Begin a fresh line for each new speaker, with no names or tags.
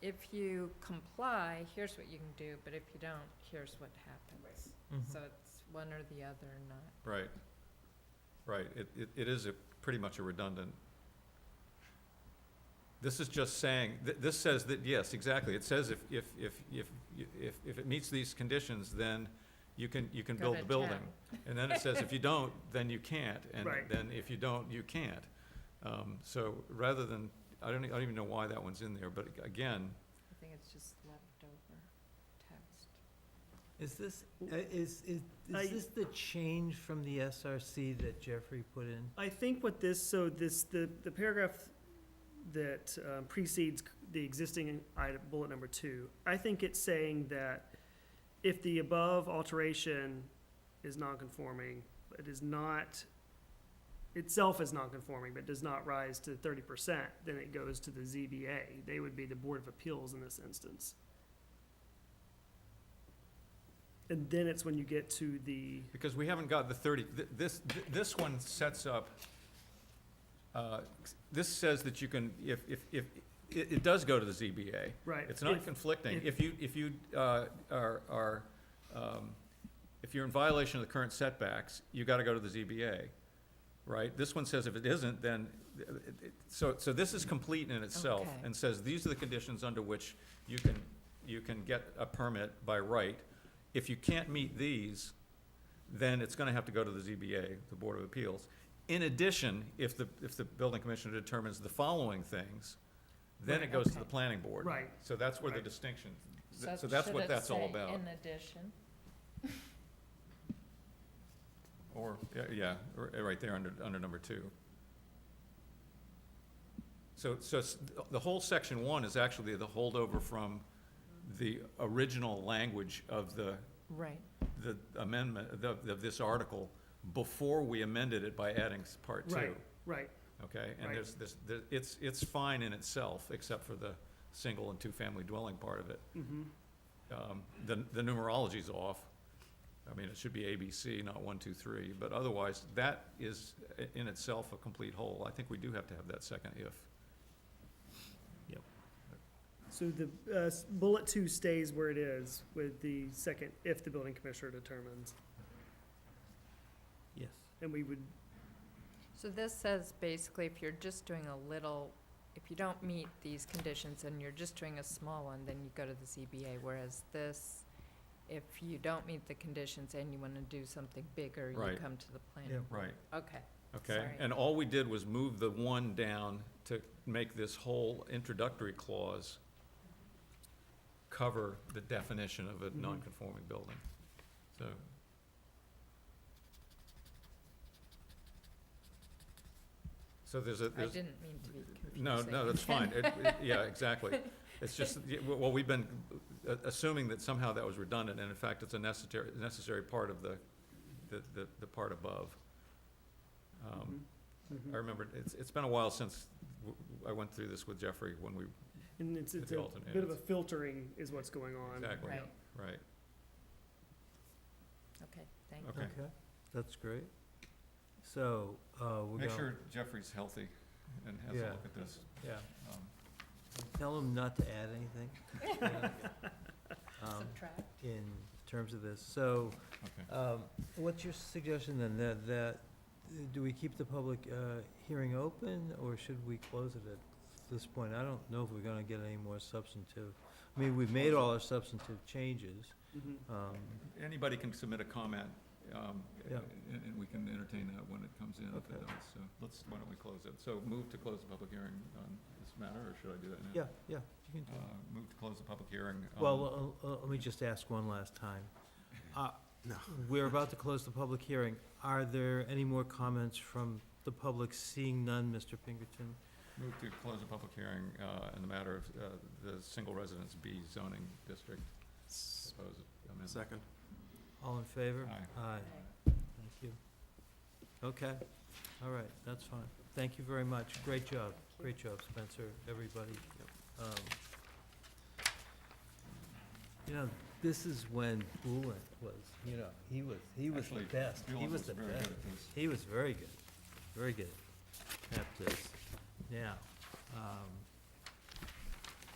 if you comply, here's what you can do, but if you don't, here's what happens.
Mm-hmm.
So it's one or the other, not,
Right, right, it, it, it is a, pretty much a redundant. This is just saying, th- this says that, yes, exactly, it says if, if, if, if, you- if, if it meets these conditions, then you can, you can
Go
build
to
the building.
town.
And then it says if you don't, then you can't, and
Right.
then if you don't, you can't. Um, so rather than, I don't, e- I don't even know why that one's in there, but ag- again,
I think it's just leftover text.
Is this, uh, is, is,
I-
is this the change from the SRC that Jeffrey put in?
I think what this, so this, the, the paragraph that um, precedes the existing item, bullet number two, I think it's saying that if the above alteration is non-conforming, it is not, itself is non-conforming, but does not rise to thirty percent, then it goes to the ZBA. They would be the Board of Appeals in this instance. And then it's when you get to the,
Because we haven't got the thirty, th- this, th- this one sets up, uh, this says that you can, if, if, if, it, it does go to the ZBA.
right.
It's not
if-
conflicting.
if-
If you, if you, uh, are, are, um, if you're in violation of the current setbacks, you gotta go to the ZBA, right? This one says if it isn't, then, th- it- it- so, so this is complete in itself
Okay.
and says, these are the conditions under which you can, you can get a permit by right. If you can't meet these, then it's gonna have to go to the ZBA, the Board of Appeals. In addition, if the, if the building commissioner determines the following things, then it
Right,
goes to the
okay.
planning board.
Right.
So that's where the
Right.
distinction, th- so that's
should
what
it
that's all
say
about.
In addition,
Or, yeah, yeah, r- right there under, under number two. So, so s- the whole section one is actually the holdover from the original language of the,
right,
the amendment, the- of this article before we amended it by adding s- part two.
Right, right.
Okay, and
Right.
there's, this, there- it's, it's fine in itself, except for the single and two-family dwelling part of it.
Mm-hmm.
Um, The, the numerology's off. I mean, it should be ABC, not one, two, three, but otherwise, that is i- in itself a complete whole. I think we do have to have that second if.
So the uh, s- bullet two stays where it is with the second, if the building commissioner determines.
Yes.
And we would,
so this says basically if you're just doing a little, if you don't meet these conditions and you're just doing a small one, then you go to the ZBA, whereas this, if you don't meet the conditions and you wanna do something bigger, you
Right.
come to the planning.
Right.
Okay,
Okay,
Sorry.
and all we did was move the one down to make this whole introductory clause cover the definition of a
Mhm.
non-conforming building, so. So there's a,
I
there's,
didn't mean to be confusing.
no, no, that's fine, It- it- yeah, exactly. It's just, y- w- well, we've been uh, assuming that somehow that was redundant, and in fact, it's a necessary, necessary part of the, the, the- the part above. Um,
Mm-hmm.
mm-hmm.
I remember, it's, it's been a while since w- w- I went through this with Jeffrey when we,
and it's,
With
it's
the
a
alternate,
bit of a
it's-
filtering is what's going on.
Exactly.
Right,
right,
okay, thank you.
okay.
Okay, that's great. So, uh, we're
Make
going,
sure Jeffrey's healthy and has a
Yeah.
look at this.
yeah,
Um,
tell him not to add anything. um,
Subtract.
In terms of this, so,
Okay,
um, what's your suggestion then, that, that, uh, do we keep the public, uh, hearing open, or should we close it at this point? I don't know if we're gonna get any more substantive, I mean, we've made all our substantive changes,
Mhm.
um,
anybody can submit a comment, um,
Yeah.
and, and we can entertain that when it comes in, if it
Okay.
does, so let's, why don't we close it? So move to close the public hearing on this matter, or should I do that now?
yeah, yeah, you can do
Uh,
it.
move to close the public hearing. um,
Well, uh, uh, let me just ask one last time. Uh, We're about to close the public hearing. Are there any more comments from the public? Seeing none, Mr. Pinkerton?
Move to close the public hearing, uh, in the matter of, uh, the single residence B zoning district proposed amendment.
Second.
All in favor?
Aye.
Thank you. Okay, all right, that's fine. Thank you very much. Great job. Great job, Spencer, everybody. Um, You know, this is when Bullen was, you know, he was, he was the
Actually,
best. He
Dylan
was the
very good
best.
at this.
He was very good, very good at this. Now, um,